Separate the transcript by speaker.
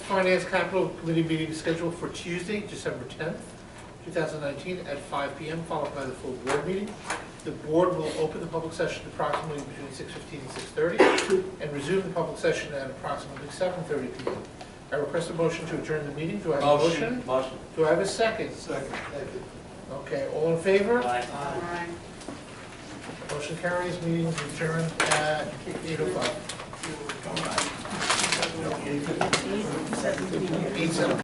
Speaker 1: Finance Capital Committee meeting scheduled for Tuesday, December 10th, 2019, at 5 PM, followed by the full board meeting. The board will open the public session approximately between 6:15 and 6:30, and resume the public session at approximately 7:30 PM. I request a motion to adjourn the meeting. Do I have a motion?
Speaker 2: Motion.
Speaker 1: Do I have a second?
Speaker 3: Second, thank you.
Speaker 1: Okay, all in favor?
Speaker 2: Aye.
Speaker 3: Aye.
Speaker 1: Motion carries, meeting is adjourned at 8:05.
Speaker 3: All right.
Speaker 1: Eight seven.